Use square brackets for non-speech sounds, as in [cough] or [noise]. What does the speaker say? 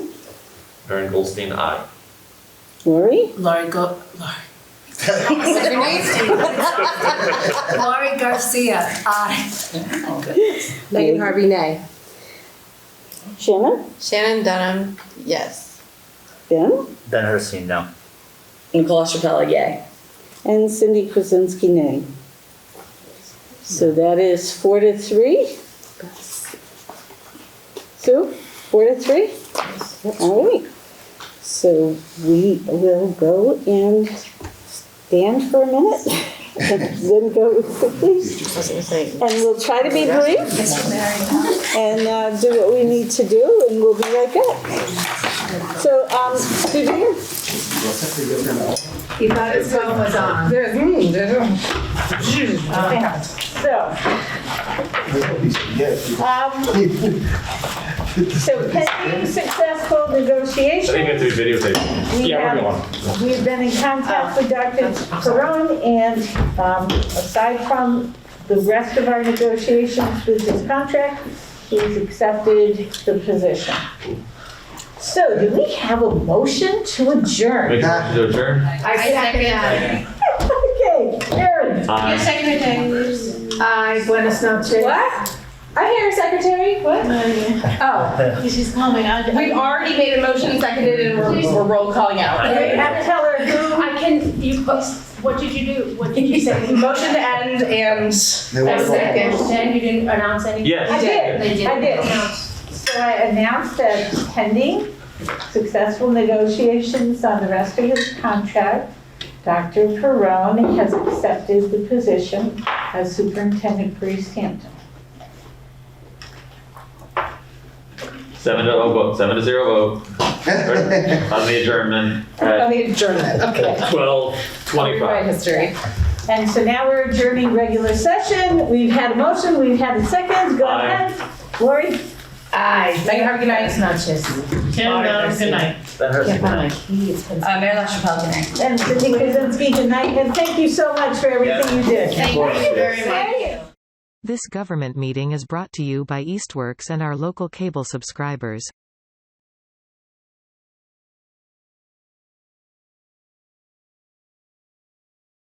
Aaron Goldstein, aye. Lori? Laurie Go, Laurie. Is that your name? Laurie Garcia, aye. Megan Harvey, nay. Shannon? Shannon Dunham, yes. Ben? Ben Herstein, no. And Colostropella, yay. And Cindy Kuzensky, nay. So that is four to three? Sue, four to three? All right. So we will go and stand for a minute [laughs] and then go quickly. I was gonna say, And we'll try to be brief and uh, do what we need to do, and we'll be right back. So, um, Vivian? You thought his phone was on. So, um, so pending successful I think negotiation, we have to be videotaped. we Yeah, we're have, going. we've been in contact with Dr. Peron, and, um, aside from the rest of our negotiations with his contract, he's accepted the position. So, do we have a motion to adjourn? Make a motion to adjourn. I second that. Okay, Karen. Aye. Aye, buenas noches. What? I'm here, secretary. What? Oh, She's coming. we've already made a motion, seconded, and we're, we're roll calling out. You have to tell her who, I can, you, what did you do? What did you [laughs] say? Motion to end and. Then you didn't announce anything? Yes. I did, They I did. announce. So I announced that pending successful negotiations on the rest of his contract, Dr. Perone has accepted the position as superintendent for East Hampton. Seven to oh vote, seven to zero vote on the adjournment On [laughs] at the adjournment, okay. twelve Rewrite twenty-five. history. And so now we're adjourning regular session. We've had a motion, we've had a second, go Aye. ahead. Lori? Aye. Megan Harvey, good night. Noches. good night. Ben Herstein, no. Uh, Mary LaChapelle, nay. And Cindy Kuzinski tonight, and thank you so much for everything you did. Thank you very much. This government meeting is brought to you by Eastworks and our local cable subscribers.